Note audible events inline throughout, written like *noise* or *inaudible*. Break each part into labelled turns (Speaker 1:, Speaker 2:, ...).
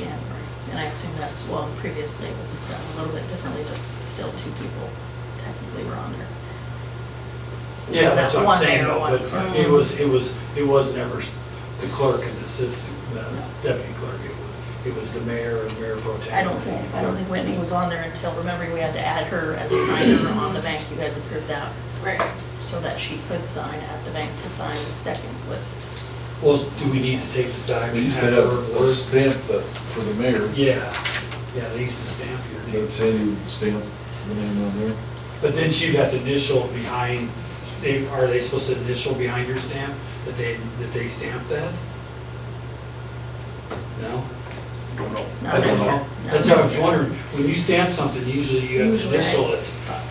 Speaker 1: January. And I assume that's, well, previously it was done a little bit differently, but still two people technically were on there.
Speaker 2: Yeah, that's what
Speaker 1: One
Speaker 2: I'm saying,
Speaker 1: mayor,
Speaker 2: though,
Speaker 1: one-
Speaker 2: but it
Speaker 1: Mm.
Speaker 2: was, it was, it was never s- the clerk and the assistant, the deputy clerk. It was- It was the mayor and mayor pro tem.
Speaker 1: I don't think, I don't think Whitney was on there until, remember, we had to add her as a signer on the bank, you guys approved that,
Speaker 3: Right.
Speaker 1: so that she could sign at the bank to sign the second with,
Speaker 2: Well, do we need to take this time?
Speaker 4: We
Speaker 2: and
Speaker 4: used to
Speaker 2: have
Speaker 4: have
Speaker 2: her
Speaker 4: a
Speaker 2: work?
Speaker 4: stamp that, for the mayor,
Speaker 2: Yeah, yeah, they used to stamp your name.
Speaker 4: that Sandy would stamp the name on there.
Speaker 2: But then she'd have to initial behind, they, are they supposed to initial behind your stamp, that they, that they stamped that? No?
Speaker 4: Don't know.
Speaker 1: No,
Speaker 2: I don't
Speaker 1: that's
Speaker 2: know.
Speaker 1: right. No.
Speaker 2: That's what I was wondering, when you stamp something, usually you have to
Speaker 1: Usually, right.
Speaker 2: initial it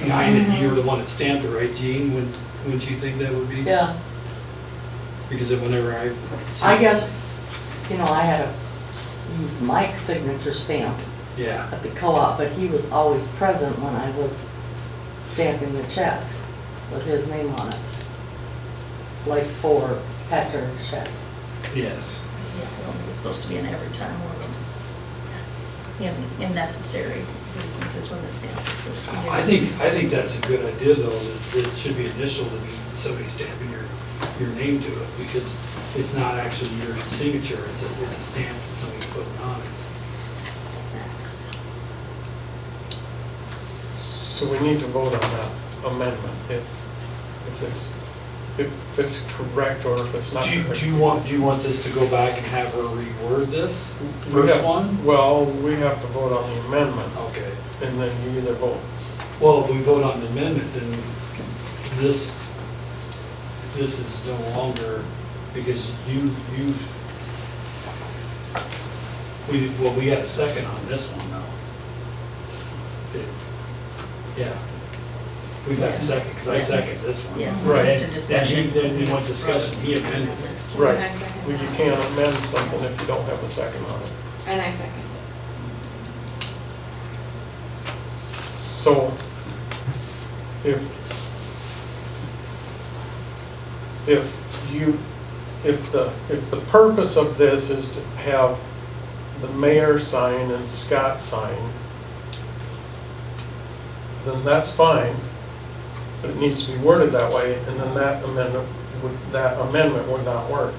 Speaker 2: behind it, you're the one that stamped it, right, Gene? Wouldn't, wouldn't you think that would be?
Speaker 5: Yeah,
Speaker 2: Because of whenever I.
Speaker 5: I guess, you know, I had to use Mike's signature stamp
Speaker 2: Yeah,
Speaker 5: at the co-op, but he was always present when I was stamping the checks with his name on it. Like for Patrick's checks.
Speaker 2: yes.
Speaker 1: yeah, I don't think it's supposed to be an every time or in, in necessary reasons is when the stamp is supposed to be used.
Speaker 2: I think, I think that's a good idea, though, that it should be initial to be somebody stamping your, your name to it, because it's not actually your signature, it's a, it's a stamp that somebody's putting on it.
Speaker 1: Max.
Speaker 6: So we need to vote on that amendment, if, if it's, if it's correct or if it's not
Speaker 2: Do you,
Speaker 6: correct.
Speaker 2: do you want, do you want this to go back and have her reword this
Speaker 6: We
Speaker 2: first
Speaker 6: have-
Speaker 2: one?
Speaker 6: Well, we have to vote on the amendment,
Speaker 2: Okay.
Speaker 6: and then you either vote,
Speaker 2: Well, if we vote on the amendment, then this, this is no longer, because you, you, we, well, we got a second on this one now. Yeah. We've got a second, because I
Speaker 1: Yes.
Speaker 2: second this one.
Speaker 1: Yes.
Speaker 6: Right.
Speaker 1: Went to
Speaker 2: And
Speaker 1: discussion.
Speaker 2: Then he, then he went discussion, he amended it.
Speaker 6: Right.
Speaker 3: And I second
Speaker 6: Well, you
Speaker 3: that.
Speaker 6: can't amend something if you don't have a second on it.
Speaker 3: And I second it.
Speaker 6: So, if, if you, if the, if the purpose of this is to have the mayor sign and Scott sign, then that's fine, but it needs to be worded that way, and then that amendment, would that amendment would not work.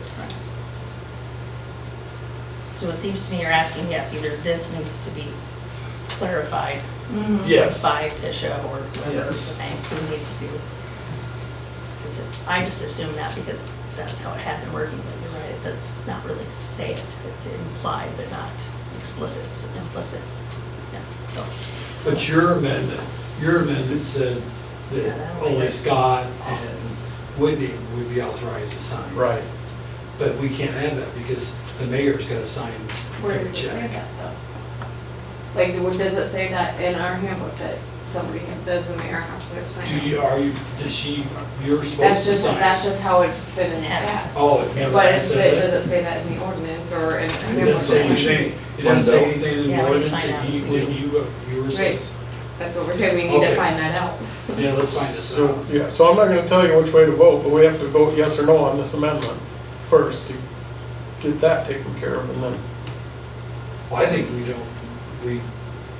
Speaker 1: So it seems to me you're asking, yes, either this needs to be clarified Mm-hmm.
Speaker 2: Yes.
Speaker 1: by Tisha or whoever
Speaker 2: Yes.
Speaker 1: the bank who needs to. 'Cause it- I just assume that because that's how it had been working, but you're right, it does not really say it. It's implied but not explicit, it's implicit. Yeah, so,
Speaker 2: But your amendment, your amendment said
Speaker 1: Yeah,
Speaker 2: that
Speaker 1: that only
Speaker 2: only
Speaker 1: goes
Speaker 2: Scott and
Speaker 1: office.
Speaker 2: Whitney would be authorized to sign.
Speaker 6: Right.
Speaker 2: But we can't have that because the mayor's got to sign
Speaker 3: Where
Speaker 2: every
Speaker 3: does it say
Speaker 2: check.
Speaker 3: that though? Like, what does it say that in our handbook that somebody, can- does the mayor have to
Speaker 2: Do
Speaker 3: sign? it?
Speaker 2: you, are you, does she, you're supposed
Speaker 3: That's
Speaker 2: to
Speaker 3: just,
Speaker 2: sign?
Speaker 3: that's just how it's been in the
Speaker 1: Has-
Speaker 3: past.
Speaker 2: Oh, it never
Speaker 3: But it, but it
Speaker 2: said that.
Speaker 3: doesn't say that in the ordinance or in. the
Speaker 2: It doesn't say
Speaker 3: handbook.
Speaker 2: anything, it doesn't say anything in
Speaker 1: Yeah,
Speaker 2: the
Speaker 1: we need to
Speaker 2: ordinance
Speaker 1: find
Speaker 2: that
Speaker 1: out.
Speaker 2: you, that you, uh, you were supposed.
Speaker 3: That's what we're saying, we need
Speaker 2: Okay.
Speaker 3: to find that out.
Speaker 2: Yeah, let's find this
Speaker 6: So,
Speaker 2: out.
Speaker 6: yeah, so I'm not gonna tell you which way to vote, but we have to vote yes or no on this amendment first to get that taken care of, and then,
Speaker 2: Well, I think we don't, we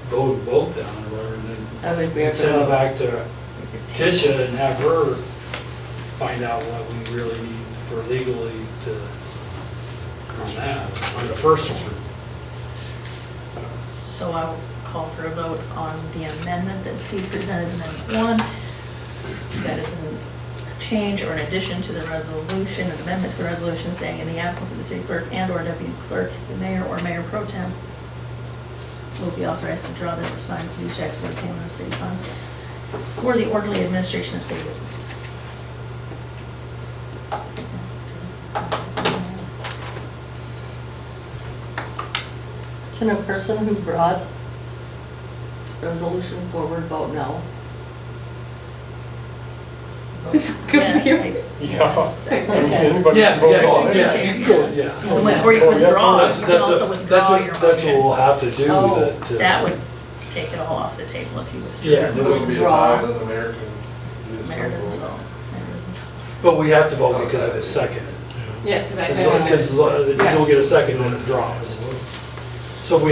Speaker 2: vote, vote down or whatever and then
Speaker 5: I think we have to
Speaker 2: Send it
Speaker 5: vote.
Speaker 2: back to Tisha and have her find out what we really need for legally to, on that, on the first one.
Speaker 1: so I will call for a vote on the amendment that Steve presented, amendment one. That is a change or an addition to the resolution, an amendment to the resolution saying in the absence of the city clerk and or deputy clerk, the mayor or mayor pro tem will be authorized to draw them or sign city checks for the payment of city funds for the orderly administration of city business.
Speaker 5: Can a person who brought resolution forward vote no?
Speaker 1: Yeah, I-
Speaker 6: yeah.
Speaker 1: *laughs* yes,
Speaker 6: I mean,
Speaker 1: I-
Speaker 6: Anybody
Speaker 2: Yeah,
Speaker 6: can vote
Speaker 2: yeah,
Speaker 6: on
Speaker 2: yeah.
Speaker 6: it.
Speaker 2: you could, yeah.
Speaker 1: Or win- Or you
Speaker 6: Well, yes,
Speaker 1: withdraw, Oh,
Speaker 6: that's-
Speaker 1: you can also withdraw your
Speaker 2: That's what
Speaker 1: motion.
Speaker 2: we'll have to do
Speaker 5: Oh,
Speaker 2: to- to.
Speaker 1: That would take it all off the table if you withdraw.
Speaker 2: Yeah,
Speaker 4: There would be a time that the mayor can do
Speaker 1: Mayor doesn't vote.
Speaker 4: something.
Speaker 1: Mayor doesn't vote.
Speaker 2: but we have to vote because it was seconded.
Speaker 3: Yes, because I
Speaker 2: Because
Speaker 3: said.
Speaker 2: if you don't get a second, then it drops. So if we